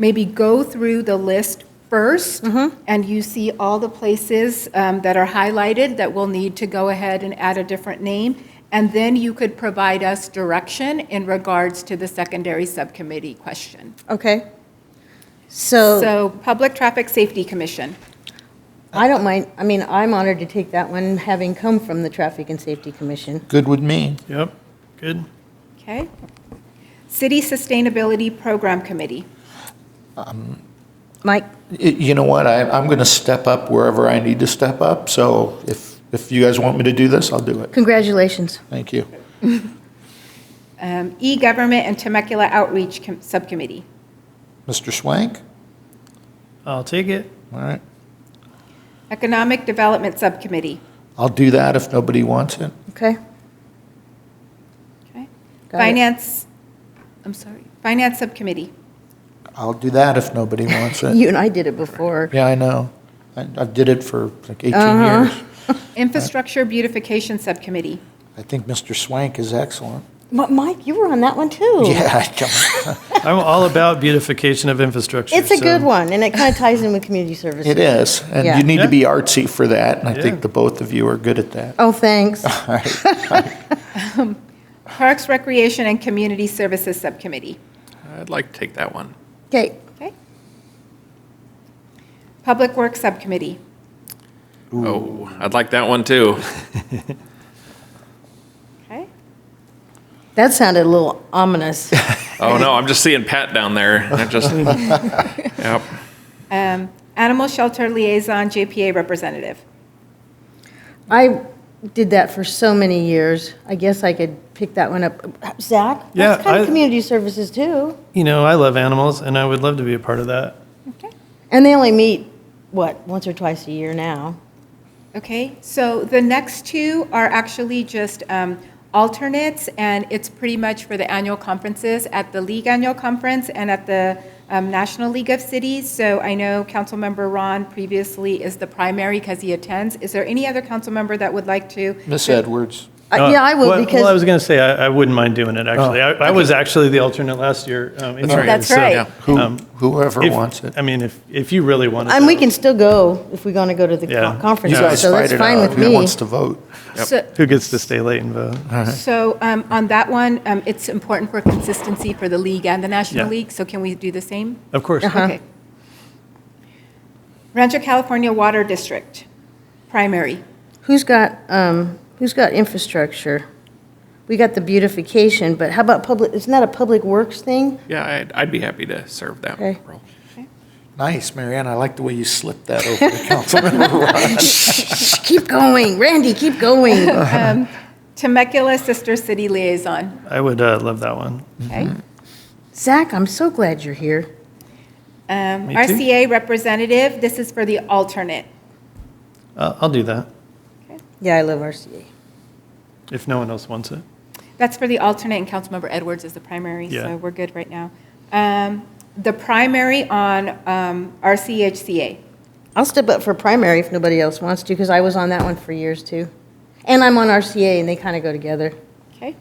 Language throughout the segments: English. maybe go through the list 1st Mm-hmm. and you see all the places um, that are highlighted that will need to go ahead and add a different name, and then you could provide us direction in regards to the secondary subcommittee question. Okay. So So, Public Traffic Safety Commission. I don't mind, I mean, I'm honored to take that one, having come from the Traffic and Safety Commission. Good with me. Yep, good. Okay. City Sustainability Program Committee. Mike, Y- You know what? I, I'm going to step up wherever I need to step up. So if, if you guys want me to do this, I'll do it. congratulations. Thank you. Um, E-Government and Temecula Outreach Com- Subcommittee. Mr. Swank? I'll take it. All right. Economic Development Subcommittee. I'll do that if nobody wants it. Okay, Okay. Got it. Finance, I'm sorry, Finance Subcommittee. I'll do that if nobody wants it. you and I did it before. Yeah, I know. I, I did it for like 18 Uh-huh. years. Infrastructure Beautification Subcommittee. I think Mr. Swank is excellent. Mi- Mike, you were on that one too. Yeah, I don't- I'm all about beautification of infrastructure. It's a so- good one, and it kind of ties in with community services. it is. And Yeah. you need Yeah. to be artsy for that. And I Yeah. think the both of you are good at that. Oh, thanks. Parks, Recreation, and Community Services Subcommittee. I'd like to take that one. Okay, Okay. Public Works Subcommittee. Oh, I'd like that one too. Okay. that sounded a little ominous. Oh no, I'm just seeing Pat down there. I just, yep. Um, Animal Shelter Liaison, JPA Representative. I did that for so many years. I guess I could pick that one up. Zach? Yeah, That's kind I- of community services too. You know, I love animals and I would love to be a part of that. Okay. And they only meet, what, once or twice a year now? Okay, so the next two are actually just um, alternates, and it's pretty much for the annual conferences, at the league annual conference and at the um, National League of Cities. So I know Councilmember Ron previously is the primary because he attends. Is there any other council member that would like to? Miss Edwards. Uh, Yeah, I Well- would because. Well, I was going to say, I, I wouldn't mind doing it, actually. Oh. I, I was actually the alternate last year. um, in right. Oregon, That's so right. Yeah. Who, Um, whoever if- wants it. I mean, if, if you really wanted. And we that. can still go if we're going to go to the co- Yeah. conference, You guys so fight that's it fine out. with Who me. wants to vote? So- Who gets to stay late and vote? Uh-huh. So um, on that one, um, it's important for consistency for the league and the National Yeah. League, so can we do the same? Of course. Uh-huh. Okay. Rancho California Water District, primary. Who's got, um, who's got infrastructure? We got the beautification, but how about public, isn't that a public works thing? Yeah, I'd, I'd be happy to serve that Okay. role. Nice, Marianne. I like the way you slipped that over to Councilmember Keep going, Randy, keep going. Temecula Sister City Liaison, I would uh, love that one. okay? Zach, I'm so glad you're here. Um, Me too. RCA Representative, this is for the alternate. Uh, I'll do that Yeah, I love RCA. if no one else wants it. That's for the alternate, and Councilmember Edwards is the primary, Yeah. so we're good right now. Um, The primary on um, RCHCA, I'll step up for primary if nobody else wants to, because I was on that one for years too. And I'm on RCA, and they kind of go together. okay?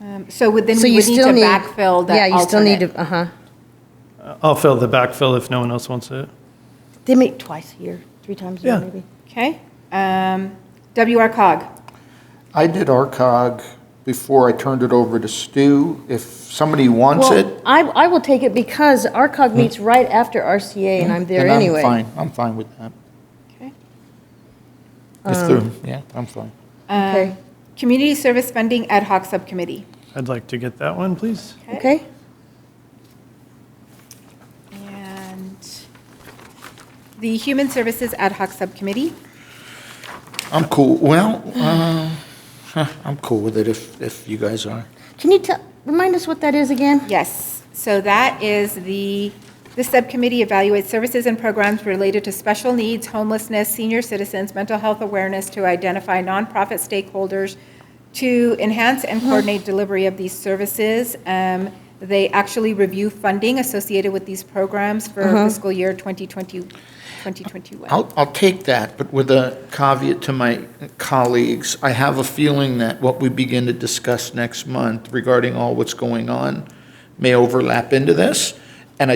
Um, So would then So we you would need still to need. backfill that alternate. Yeah, you still need to, uh-huh. Uh, I'll fill the backfill if no one else wants it. They meet twice a year, three times a year Yeah. maybe. Okay? Um, WR cog. I did ARCOG before I turned it over to Stu. If somebody wants Well, it, Hmm. I, I will take it because ARCOG meets right after RCA, and I'm there then anyway. I'm fine. I'm fine with that. Okay. Um, If they're- yeah, I'm fine. Okay, Um, Community Service Funding Ad Hoc Subcommittee. I'd like to get that one, please. okay. And the Human Services Ad Hoc Subcommittee. I'm cool. Well, uh, huh, I'm cool with it if, if you guys are. Can you tell, remind us what that is again? Yes, so that is the, this subcommittee evaluates services and programs related to special needs, homelessness, senior citizens, mental health awareness to identify nonprofit stakeholders to enhance and coordinate delivery of these services. Um, They actually review funding associated with these programs for fiscal year 2020, 2021. I'll, I'll take that, but with a caveat to my colleagues, I have a feeling that what we begin to discuss next month regarding all what's going on may overlap into this.